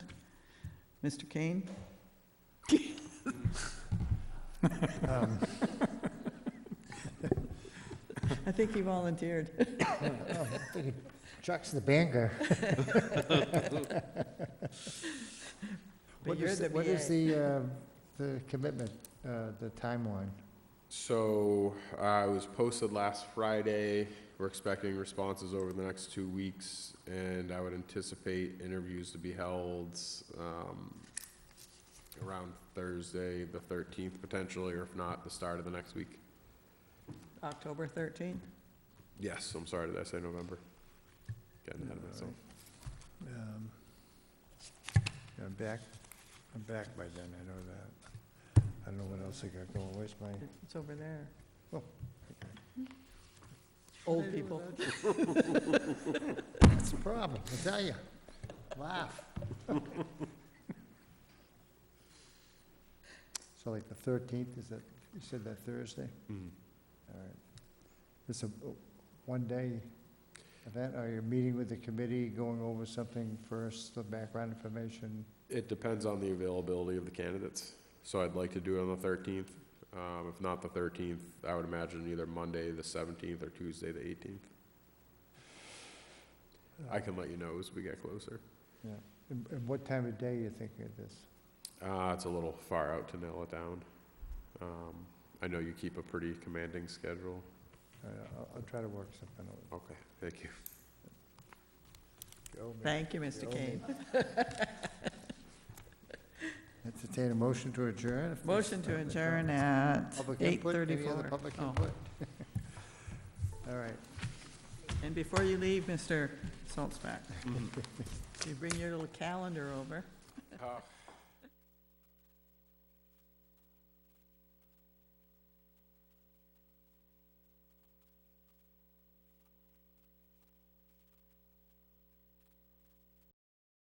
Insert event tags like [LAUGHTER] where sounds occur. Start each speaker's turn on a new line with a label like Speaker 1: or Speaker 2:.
Speaker 1: Mr. Kane?
Speaker 2: Um, [LAUGHS]
Speaker 1: I think he volunteered.
Speaker 2: Chuck's
Speaker 1: [LAUGHS]
Speaker 2: the banger.
Speaker 1: But
Speaker 2: What
Speaker 1: you're
Speaker 2: is,
Speaker 1: the
Speaker 2: what is
Speaker 1: BA.
Speaker 2: the, uh, the commitment, uh, the timeline?
Speaker 3: So uh, it was posted last Friday. We're expecting responses over the next two weeks, and I would anticipate interviews to be held um, around Thursday, the 13th potentially, or if not, the start of the next week.
Speaker 1: October 13th?
Speaker 3: Yes, I'm sorry, did I say November? Getting ahead of myself.
Speaker 2: Um, yeah, I'm back, I'm back by then, I know that. I don't know what else I got going, where's my,
Speaker 1: It's over there.
Speaker 2: Oh,
Speaker 1: Old
Speaker 2: [LAUGHS]
Speaker 1: people.
Speaker 2: that's the problem, I tell you. Laugh. [LAUGHS] So like the thirteenth, is that, you said that Thursday?
Speaker 3: Mhm.
Speaker 2: All right. It's a one-day event, are you meeting with the committee, going over something first, the background information?
Speaker 3: It depends on the availability of the candidates. So I'd like to do it on the 13th. Um, If not the 13th, I would imagine either Monday, the 17th, or Tuesday, the 18th. I can let you know as we get closer.
Speaker 2: And and what time of day you thinking of this?
Speaker 3: Uh, It's a little far out to nail it down. Um, I know you keep a pretty commanding schedule.
Speaker 2: All right, I'll, I'll try to work something out.
Speaker 3: Okay, thank you.
Speaker 2: Go, man.
Speaker 1: Thank you, Mr. Kane.
Speaker 2: [LAUGHS] Entertain a motion to adjourn? if there's
Speaker 1: Motion to
Speaker 2: public
Speaker 1: adjourn
Speaker 2: comments.
Speaker 1: at
Speaker 2: Public input? Any other
Speaker 1: 8:34.
Speaker 2: public
Speaker 1: Oh,
Speaker 2: input? [LAUGHS] All right.
Speaker 1: And before you leave, Mr. Saltzback, you bring your little calendar over.
Speaker 3: Uh,